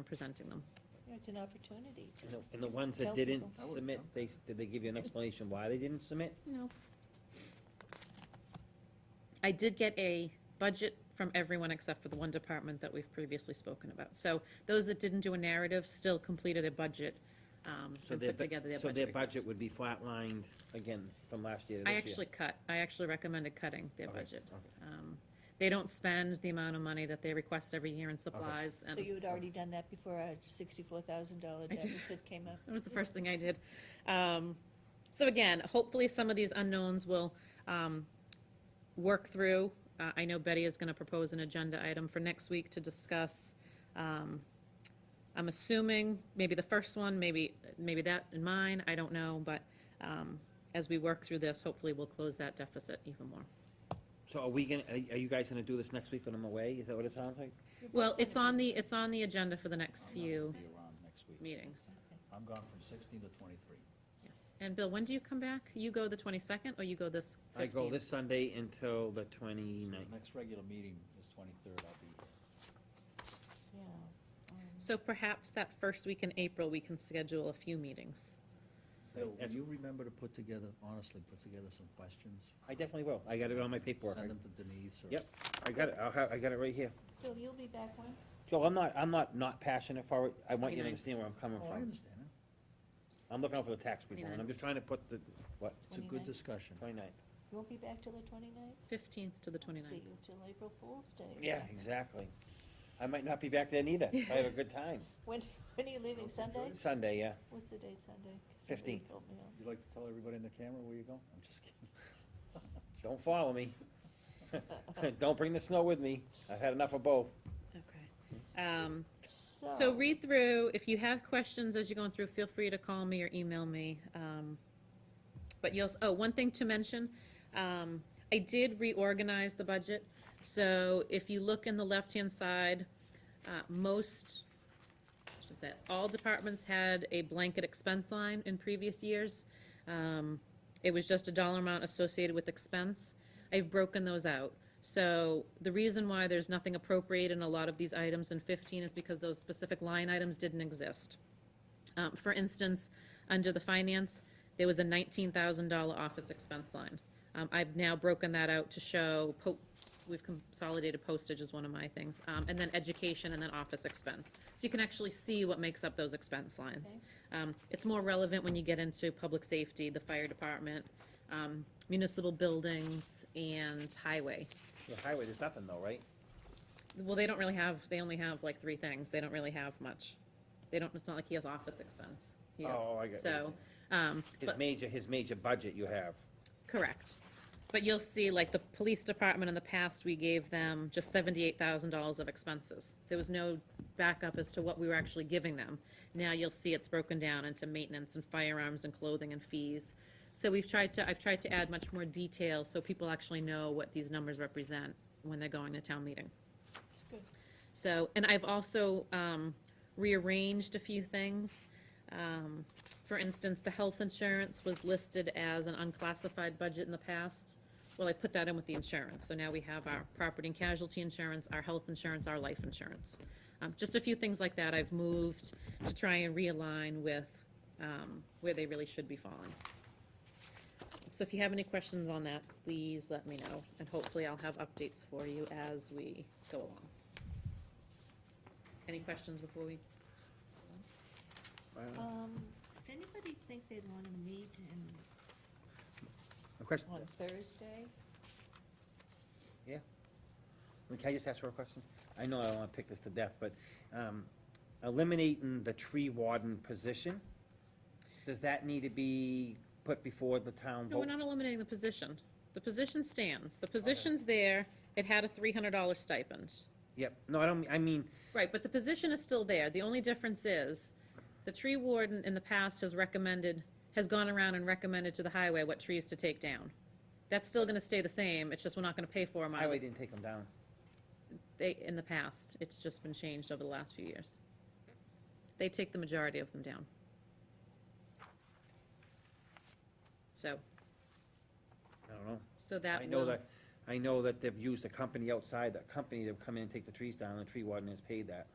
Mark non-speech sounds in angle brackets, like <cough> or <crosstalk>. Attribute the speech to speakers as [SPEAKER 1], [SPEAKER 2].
[SPEAKER 1] from presenting them.
[SPEAKER 2] It's an opportunity.
[SPEAKER 3] And the- And the ones that
[SPEAKER 2] Tell
[SPEAKER 3] didn't
[SPEAKER 2] people.
[SPEAKER 4] I would've
[SPEAKER 3] submit,
[SPEAKER 4] come.
[SPEAKER 3] they, s- did they give you an explanation why they didn't submit?
[SPEAKER 1] No. I did get a budget from everyone except for the one department that we've previously spoken about. So those that didn't do a narrative still completed a budget, um,
[SPEAKER 3] So
[SPEAKER 1] and
[SPEAKER 3] their
[SPEAKER 1] put
[SPEAKER 3] bu-
[SPEAKER 1] together their budget.
[SPEAKER 3] So their
[SPEAKER 1] request.
[SPEAKER 3] budget would be flatlined again from last year to this
[SPEAKER 1] I
[SPEAKER 3] year?
[SPEAKER 1] actually cut, I actually recommended cutting their
[SPEAKER 3] Okay,
[SPEAKER 1] budget.
[SPEAKER 3] okay.
[SPEAKER 1] Um, They don't spend the amount of money that they request every year in supplies, and
[SPEAKER 2] So you had already done that before our sixty-four thousand dollar
[SPEAKER 1] Um, I did.
[SPEAKER 2] deficit came up?
[SPEAKER 1] That was the first thing I did. Um, So again, hopefully some of these unknowns will um, work through. Uh, I know Betty is going to propose an agenda item for next week to discuss. um, I'm assuming maybe the first one, maybe, maybe that and mine, I don't know, but um, as we work through this, hopefully we'll close that deficit even more.
[SPEAKER 3] So are we gonna, are are you guys gonna do this next week when I'm away? Is that what it sounds like?
[SPEAKER 1] Well, it's on the, it's on the agenda for the next
[SPEAKER 4] I'm not gonna
[SPEAKER 1] few
[SPEAKER 4] be around next week.
[SPEAKER 1] meetings.
[SPEAKER 4] I'm gone from sixteen to twenty-three.
[SPEAKER 1] Yes. And Bill, when do you come back? You go the 22nd or you go this 15th?
[SPEAKER 3] I go this Sunday until the 29th.
[SPEAKER 4] The Next regular meeting is twenty-third, I'll be here.
[SPEAKER 2] Yeah. um,
[SPEAKER 1] So perhaps that first week in April, we can schedule a few meetings.
[SPEAKER 4] Bill, will
[SPEAKER 3] Yes.
[SPEAKER 4] you remember to put together, honestly, put together some questions?
[SPEAKER 3] I definitely will. I got it on my paperwork.
[SPEAKER 4] Send them to Denise or?
[SPEAKER 3] Yep. I got it, I'll have, I got it right here.
[SPEAKER 2] Bill, you'll be back when?
[SPEAKER 3] Joe, I'm not, I'm not not passionate for it. I want you to
[SPEAKER 1] 29th.
[SPEAKER 3] understand where I'm coming
[SPEAKER 4] Oh, I
[SPEAKER 3] from.
[SPEAKER 4] understand. it.
[SPEAKER 3] I'm looking out for the tax people, and I'm
[SPEAKER 1] 29th.
[SPEAKER 3] just trying to put the, what,
[SPEAKER 4] It's a good
[SPEAKER 2] 29th?
[SPEAKER 4] discussion.
[SPEAKER 3] 29th?
[SPEAKER 2] You won't be back till the twenty-ninth?
[SPEAKER 1] 15th to the
[SPEAKER 2] See
[SPEAKER 1] 29th.
[SPEAKER 2] you till April Fool's Day.
[SPEAKER 3] Yeah, exactly. I might not be back then either. I have a
[SPEAKER 1] <laughs>
[SPEAKER 3] good time.
[SPEAKER 2] When, when are you leaving, Sunday?
[SPEAKER 3] Sunday, yeah.
[SPEAKER 2] What's the date, Sunday? 'Cause somebody
[SPEAKER 3] 15th.
[SPEAKER 2] told me on-
[SPEAKER 4] You'd like to tell everybody in the camera where you go? I'm just kidding.
[SPEAKER 3] Don't follow me. <laughs> Don't bring the snow with me. I've had enough of both.
[SPEAKER 1] Okay. Um, So read through, if you have questions as you're going through, feel free to call me or email me. Um, But you'll, oh, one thing to mention, um, I did reorganize the budget. So if you look in the left-hand side, uh, most, I should say, all departments had a blanket expense line in previous years. Um, It was just a dollar amount associated with expense. I've broken those out. So the reason why there's nothing appropriate in a lot of these items in 15 is because those specific line items didn't exist. Um, For instance, under the finance, there was a $19,000 office expense line. Um, I've now broken that out to show, po- we've consolidated postage as one of my things, um, and then education and then office expense. So you can actually see what makes up those expense lines. Um, It's more relevant when you get into public safety, the fire department, um, municipal buildings, and highway.
[SPEAKER 3] The highway, there's nothing though, right?
[SPEAKER 1] Well, they don't really have, they only have like three things. They don't really have much. They don't, it's not like he has office expense. He has-
[SPEAKER 3] Oh, I get what you're
[SPEAKER 1] So, um,
[SPEAKER 3] His
[SPEAKER 1] but-
[SPEAKER 3] major, his major budget you have.
[SPEAKER 1] correct. But you'll see, like, the police department in the past, we gave them just seventy-eight thousand dollars of expenses. There was no backup as to what we were actually giving them. Now you'll see it's broken down into maintenance and firearms and clothing and fees. So we've tried to, I've tried to add much more detail so people actually know what these numbers represent when they're going to town meeting.
[SPEAKER 2] It's good.
[SPEAKER 1] So, and I've also um, rearranged a few things. Um, For instance, the health insurance was listed as an unclassified budget in the past. Well, I put that in with the insurance, so now we have our property and casualty insurance, our health insurance, our life insurance. Um, Just a few things like that I've moved to try and realign with um, where they really should be falling. So if you have any questions on that, please let me know, and hopefully I'll have updates for you as we go along. Any questions before we?
[SPEAKER 2] Um, does anybody think they'd want to meet in,
[SPEAKER 3] A question?
[SPEAKER 2] on Thursday?
[SPEAKER 3] Yeah. I mean, Can I just ask her a question? I know I don't wanna pick this to death, but, um, eliminating the tree warden position, does that need to be put before the town
[SPEAKER 1] No, we're
[SPEAKER 3] vote?
[SPEAKER 1] not eliminating the position. The position stands. The position's there. It had a three hundred dollar stipend.
[SPEAKER 3] Yep, no, I don't, I mean,
[SPEAKER 1] Right, but the position is still there. The only difference is, the tree warden in the past has recommended, has gone around and recommended to the highway what trees to take down. That's still gonna stay the same. It's just we're not gonna pay for them out of
[SPEAKER 3] highway
[SPEAKER 1] the-
[SPEAKER 3] didn't take them down.
[SPEAKER 1] they, in the past. It's just been changed over the last few years. They take the majority of them down. So,
[SPEAKER 3] I don't know.
[SPEAKER 1] so that
[SPEAKER 3] I
[SPEAKER 1] will.
[SPEAKER 3] know that, I know that
[SPEAKER 1] Mm-hmm.
[SPEAKER 3] they've used a company outside, that company to come in and take the trees down, and the tree warden has paid that.